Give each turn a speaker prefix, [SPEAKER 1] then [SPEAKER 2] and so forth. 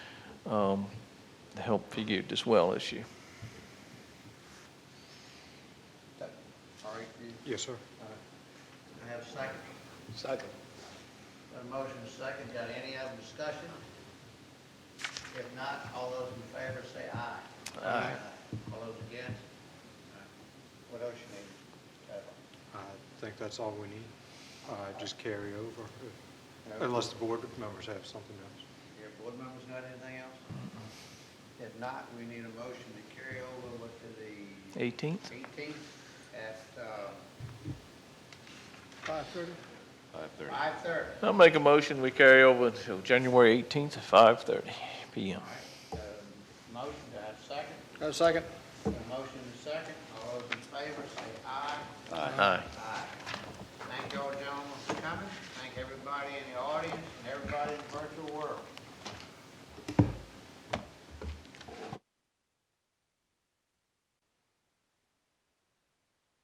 [SPEAKER 1] um, the help for you as well issue.
[SPEAKER 2] That- All right, you,
[SPEAKER 3] Yes, sir.
[SPEAKER 2] all right. Can I have a second?
[SPEAKER 3] Second.
[SPEAKER 2] Got a motion, a second, got any other discussion? If not, all those in favor say aye.
[SPEAKER 1] Aye.
[SPEAKER 2] All those against? Aye. What else you need? Kevin?
[SPEAKER 3] I think that's all we need. Uh, Just carry over,
[SPEAKER 2] Okay.
[SPEAKER 3] unless the board members have something else.
[SPEAKER 2] Your board members got anything else? If not, we need a motion to carry over to the
[SPEAKER 1] 18th?
[SPEAKER 2] eighteenth at, uh,
[SPEAKER 3] Five thirty?
[SPEAKER 2] five thirty.
[SPEAKER 1] I'll make a motion, we carry over until January 18th at 5:30 PM.
[SPEAKER 2] All right, uh, motion, do I have a second?
[SPEAKER 3] second.
[SPEAKER 2] A motion and a second, all those in favor say aye.
[SPEAKER 1] Aye.
[SPEAKER 2] Aye. Thank y'all gentlemen for coming, thank everybody in the audience and everybody in the virtual world.